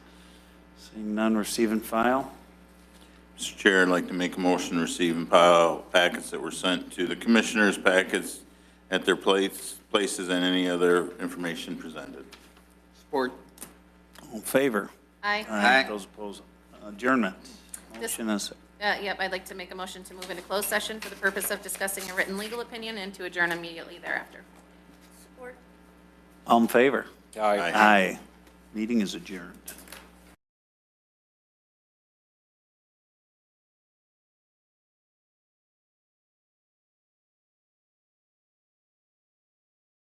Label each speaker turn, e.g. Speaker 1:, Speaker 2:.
Speaker 1: Seeing none, receive and file.
Speaker 2: Mr. Chair, I'd like to make a motion to receive and file packets that were sent to the commissioners' packets at their place, places, and any other information presented.
Speaker 3: Support.
Speaker 1: All in favor?
Speaker 4: Aye.
Speaker 3: Aye.
Speaker 1: Those opposed, adjournment. Motion is,
Speaker 4: Uh, Yep, I'd like to make a motion to move into closed session for the purpose of discussing a written legal opinion and to adjourn immediately thereafter.
Speaker 1: all in favor?
Speaker 2: Aye.
Speaker 1: Aye. Meeting is adjourned.